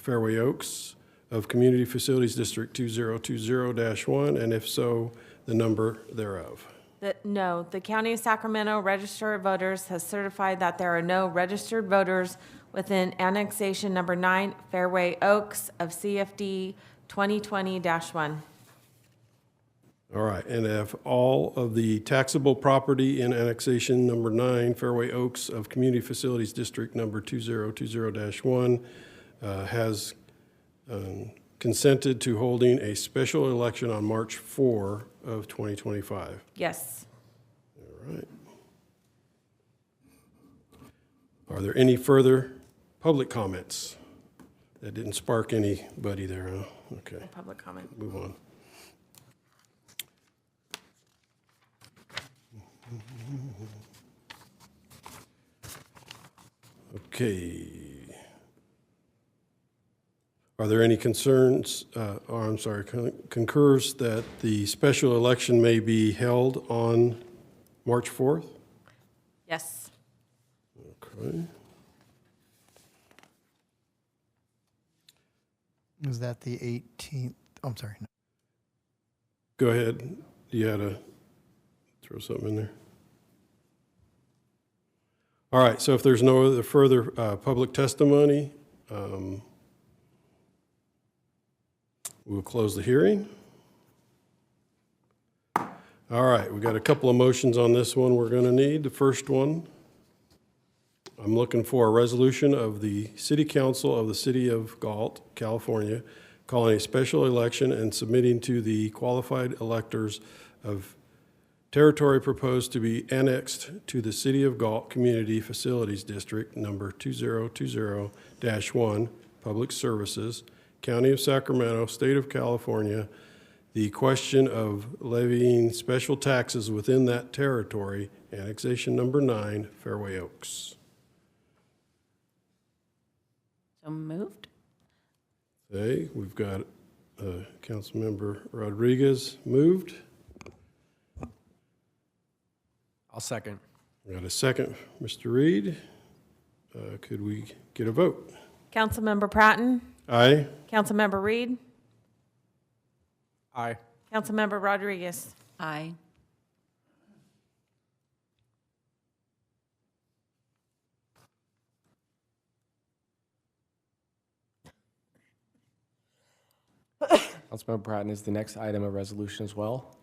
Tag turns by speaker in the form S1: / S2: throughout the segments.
S1: Fairway Oaks of Community Facilities District 2020-1, and if so, the number thereof.
S2: The- No, the County of Sacramento Register of Voters has certified that there are no registered voters within annexation number nine, Fairway Oaks of CFD 2020-1.
S1: All right, and if all of the taxable property in annexation number nine, Fairway Oaks of Community Facilities District number 2020-1, uh, has um, consented to holding a special election on March 4 of 2025.
S2: Yes.
S1: All right. Are there any further public comments? That didn't spark anybody there, huh? Okay,
S2: Public comment.
S1: move on. Okay. Are there any concerns, uh, or I'm sorry, con- concurs that the special election may be held on March 4th?
S2: Yes.
S1: Okay.
S3: Is that the 18th? I'm sorry. no.
S1: Go ahead. You had to throw something in there. All right, so if there's no other further uh, public testimony, um, we'll close the hearing. All right, we got a couple of motions on this one we're going to need. The first one, I'm looking for a resolution of the City Council of the City of Galt, California, calling a special election and submitting to the qualified electors of territory proposed to be annexed to the City of Galt Community Facilities District Number 2020-1, Public Services, County of Sacramento, State of California, the question of levying special taxes within that territory, annexation number nine, Fairway Oaks.
S4: So moved?
S1: Okay, we've got uh, Councilmember Rodriguez moved.
S5: I'll second.
S1: We got a second, Mr. Reed. Uh, Could we get a vote?
S2: Councilmember Pratton?
S1: Aye?
S2: Councilmember Reed?
S5: Aye.
S2: Councilmember Rodriguez?
S4: Aye.
S5: Councilmember Pratton is the next item of resolution as well.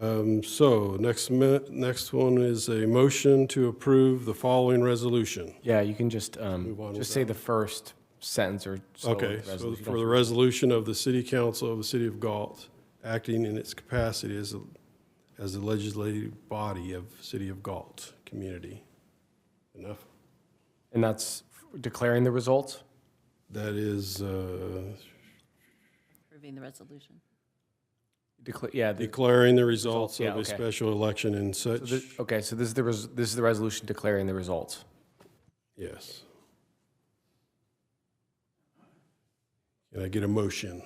S1: Um, So next, mi- next one is a motion to approve the following resolution.
S5: Yeah, you can just,
S1: Move on
S5: um,
S1: with
S5: just say the first sentence or so. of the
S1: Okay, so
S5: resolution.
S1: for the resolution of the City Council of the City of Galt, acting in its capacity as, a- as the legislative body of City of Galt community. Enough?
S5: And that's declaring the results?
S1: That is uh,
S4: Approving the resolution.
S5: Decla- Yeah. the-
S1: declaring the results
S5: Yeah,
S1: of a
S5: okay.
S1: special election and
S5: so
S1: such,
S5: the- Okay, so this is the, res- this is the resolution declaring the results.
S1: yes. Can I get a motion?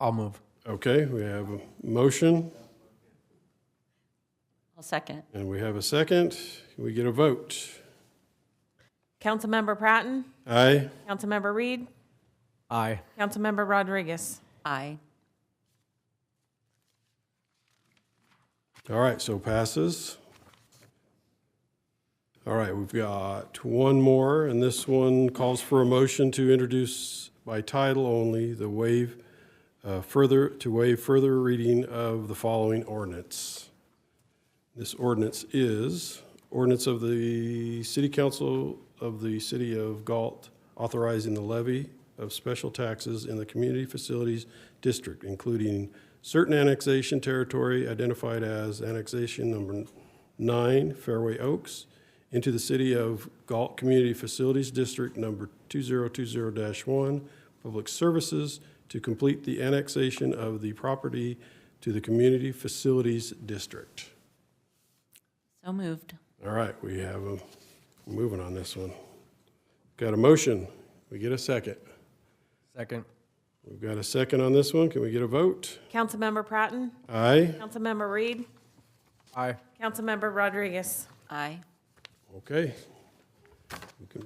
S5: I'll move.
S1: Okay, we have a motion.
S4: I'll second.
S1: And we have a second. We get a vote.
S2: Councilmember Pratton?
S1: Aye?
S2: Councilmember Reed?
S5: Aye.
S2: Councilmember Rodriguez?
S4: Aye.
S1: All right, so passes. All right, we've got one more, and this one calls for a motion to introduce by title only the waive, uh, further, to waive further reading of the following ordinance. This ordinance is ordinance of the City Council of the City of Galt authorizing the levy of special taxes in the Community Facilities District, including certain annexation territory identified as annexation number nine, Fairway Oaks, into the City of Galt Community Facilities District number 2020-1, Public Services, to complete the annexation of the property to the Community Facilities District.
S4: So moved.
S1: All right, we have a, we're moving on this one. Got a motion. We get a second.
S5: Second.
S1: We've got a second on this one. Can we get a vote?
S2: Councilmember Pratton?
S1: Aye?
S2: Councilmember Reed?
S5: Aye.
S2: Councilmember Rodriguez?
S4: Aye.
S1: Okay. We can